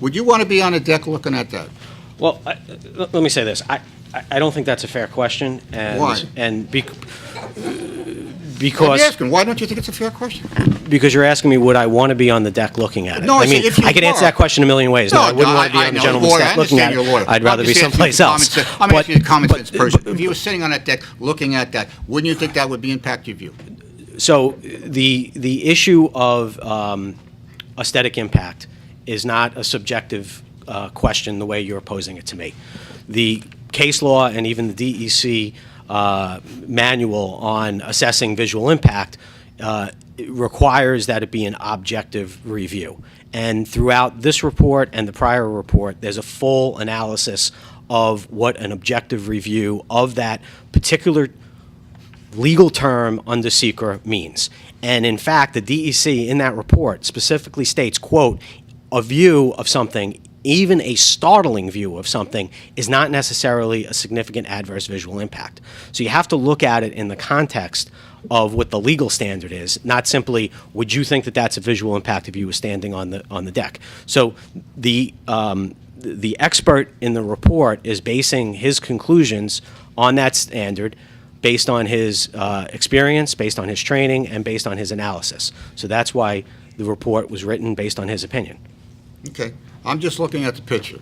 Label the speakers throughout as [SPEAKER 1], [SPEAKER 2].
[SPEAKER 1] Would you want to be on a deck looking at that?
[SPEAKER 2] Well, I- l- let me say this. I, I- I don't think that's a fair question. and-
[SPEAKER 1] Why?
[SPEAKER 2] And bec- uh,
[SPEAKER 1] I'm
[SPEAKER 2] because,
[SPEAKER 1] asking, why don't you think it's a fair question?
[SPEAKER 2] because you're asking me, would I want to be on the deck looking at it?
[SPEAKER 1] No, I
[SPEAKER 2] I
[SPEAKER 1] said
[SPEAKER 2] mean,
[SPEAKER 1] if you
[SPEAKER 2] I could answer
[SPEAKER 1] were.
[SPEAKER 2] that question a million ways. No, I wouldn't want to be
[SPEAKER 1] I- I
[SPEAKER 2] on the
[SPEAKER 1] know,
[SPEAKER 2] gentleman's
[SPEAKER 1] lawyer,
[SPEAKER 2] deck
[SPEAKER 1] I
[SPEAKER 2] looking at
[SPEAKER 1] understand you're a
[SPEAKER 2] it.
[SPEAKER 1] lawyer.
[SPEAKER 2] I'd rather
[SPEAKER 1] I'm
[SPEAKER 2] be
[SPEAKER 1] just asking
[SPEAKER 2] someplace
[SPEAKER 1] you a common
[SPEAKER 2] else.
[SPEAKER 1] sense- I'm
[SPEAKER 2] But-
[SPEAKER 1] asking you a common
[SPEAKER 2] but-
[SPEAKER 1] sense person. If you were sitting on that deck, looking at that, wouldn't you think that would be impact your view?
[SPEAKER 2] So the the issue of um, aesthetic impact is not a subjective uh, question the way you're posing it to me. The case law and even the DEC uh, manual on assessing visual impact uh, it requires that it be an objective review. And throughout this report and the prior report, there's a full analysis of what an objective review of that particular legal term under seeker means. And in fact, the DEC in that report specifically states, quote, a view of something, even a startling view of something, is not necessarily a significant adverse visual impact. So you have to look at it in the context of what the legal standard is, not simply would you think that that's a visual impact if you were standing on the on the deck. So the um, th- the expert in the report is basing his conclusions on that standard based on his uh, experience, based on his training, and based on his analysis. So that's why the report was written based on his opinion.
[SPEAKER 1] Okay, I'm just looking at the picture.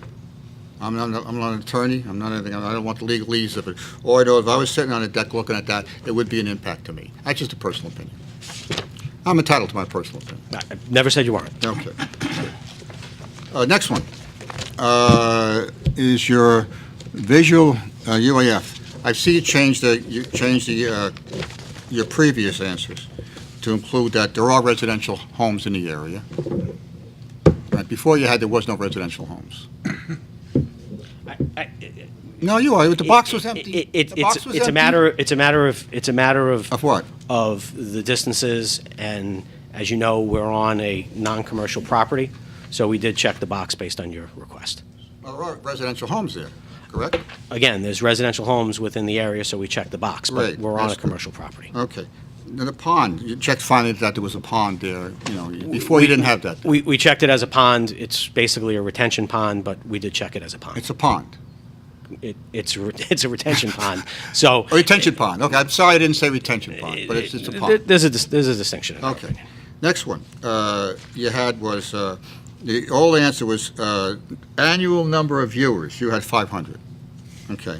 [SPEAKER 1] I'm not, I'm not an attorney, I'm not anything, I don't want the legalese of it. Or I know if I was sitting on a deck looking at that, it would be an impact to me. That's just a personal opinion. I'm entitled to my personal opinion.
[SPEAKER 2] I I never said you weren't.
[SPEAKER 1] Okay. Uh, Next one uh, is your visual uh, UAF. I see you changed the, you changed the, uh, your previous answers to include that there are residential homes in the area. Right, Before you had, there was no residential homes. No, you are, the box was empty.
[SPEAKER 2] It- it-
[SPEAKER 1] The box
[SPEAKER 2] it's,
[SPEAKER 1] was
[SPEAKER 2] it's a
[SPEAKER 1] empty.
[SPEAKER 2] matter. It's a matter of. It's a matter of.
[SPEAKER 1] Of what?
[SPEAKER 2] Of the distances, and as you know, we're on a non-commercial property, so we did check the box based on your request.
[SPEAKER 1] There are residential homes there, correct?
[SPEAKER 2] Again, there's residential homes within the area, so we checked the box, but
[SPEAKER 1] Right,
[SPEAKER 2] we're on a
[SPEAKER 1] that's good.
[SPEAKER 2] commercial property.
[SPEAKER 1] Okay. Then the pond, you checked finally that there was a pond there, you know, before you didn't have that.
[SPEAKER 2] We, we checked it as a pond. It's basically a retention pond, but we did check it as a pond.
[SPEAKER 1] It's a pond.
[SPEAKER 2] It, it's, a re- it's a retention pond, so.
[SPEAKER 1] Oh, A retention pond, okay, I'm sorry I didn't say retention pond, but it's, it's a
[SPEAKER 2] There-
[SPEAKER 1] pond.
[SPEAKER 2] There's a, dis- there's a distinction. in our
[SPEAKER 1] Okay,
[SPEAKER 2] opinion.
[SPEAKER 1] next one, uh, you had was, uh, the old answer was, uh, annual number of viewers, you had five hundred, okay.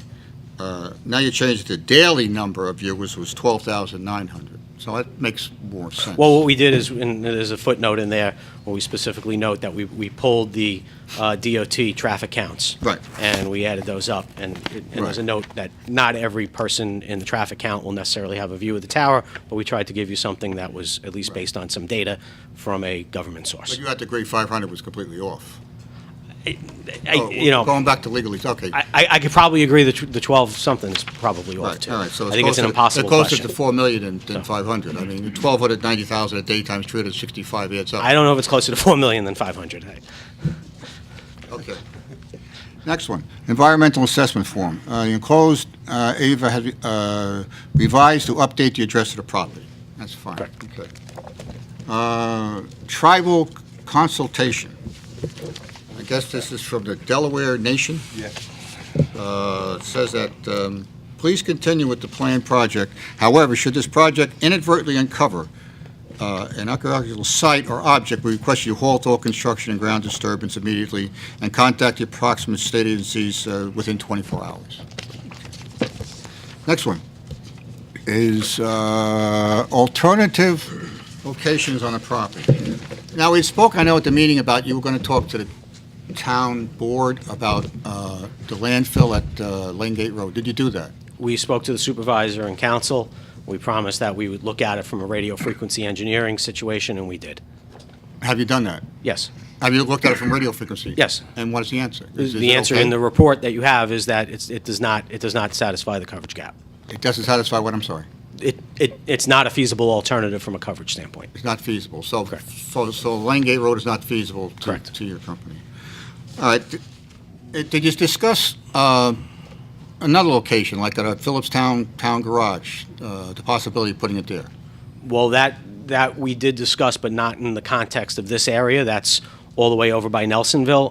[SPEAKER 1] Uh, now you changed it to daily number of viewers was twelve thousand nine hundred, so that makes more sense.
[SPEAKER 2] Well, what we did is, and there's a footnote in there, where we specifically note that we, we pulled the uh, DOT traffic counts.
[SPEAKER 1] Right.
[SPEAKER 2] And we added those up, and it- and there's a
[SPEAKER 1] Right.
[SPEAKER 2] note that not every person in the traffic count will necessarily have a view of the tower, but we tried to give you something that was at least based on some data from a government
[SPEAKER 1] But
[SPEAKER 2] source.
[SPEAKER 1] you had to agree five hundred was completely off.
[SPEAKER 2] I-
[SPEAKER 1] Oh,
[SPEAKER 2] You know.
[SPEAKER 1] Going back to legalese, okay.
[SPEAKER 2] I- I, I could probably agree that tw- the 12 something is probably off
[SPEAKER 1] Right,
[SPEAKER 2] too.
[SPEAKER 1] all right, so
[SPEAKER 2] I think it's an
[SPEAKER 1] closer-
[SPEAKER 2] impossible
[SPEAKER 1] It's
[SPEAKER 2] question.
[SPEAKER 1] closer to 4 million than- than 500. I mean, 1,290,000 a day times 365 adds up.
[SPEAKER 2] I don't know if it's closer to 4 million than 500. I-
[SPEAKER 1] Okay. Next one, environmental assessment form. Uh, you Enclosed, uh, Ava had uh, revised to update the address of the property. That's fine.
[SPEAKER 2] Correct.
[SPEAKER 1] Okay. Uh, Tribal consultation. I guess this is from the Delaware Nation. Uh, It says that, um, please continue with the planned project. However, should this project inadvertently uncover uh, an archaeological site or object, we request you halt all construction and ground disturbance immediately and contact the approximate state agencies uh, within 24 hours. Next one is uh, alternative locations on the property. Now, we spoke, I know at the meeting about, you were going to talk to the town board about uh, the landfill at uh, Lane Gate Road. Did you do that?
[SPEAKER 2] We spoke to the supervisor and council. We promised that we would look at it from a radio frequency engineering situation, and we did.
[SPEAKER 1] Have you done that?
[SPEAKER 2] Yes.
[SPEAKER 1] Have you looked at it from radio frequency?
[SPEAKER 2] Yes.
[SPEAKER 1] And what is the answer? Is- is
[SPEAKER 2] The
[SPEAKER 1] it
[SPEAKER 2] answer
[SPEAKER 1] okay?
[SPEAKER 2] in the report that you have is that it's, it does not, it does not satisfy the coverage gap.
[SPEAKER 1] It doesn't satisfy what, I'm sorry?
[SPEAKER 2] It, it, it's not a feasible alternative from a coverage standpoint.
[SPEAKER 1] It's not feasible. So,
[SPEAKER 2] Correct.
[SPEAKER 1] so, so Langate Road is not feasible to,
[SPEAKER 2] Correct.
[SPEAKER 1] to your company. All right, Th- eh, did you discuss, uh, another location, like at a Phillipstown Town Garage, uh, the possibility of putting it there?
[SPEAKER 2] Well, that, that we did discuss, but not in the context of this area. That's all the way over by Nelsonville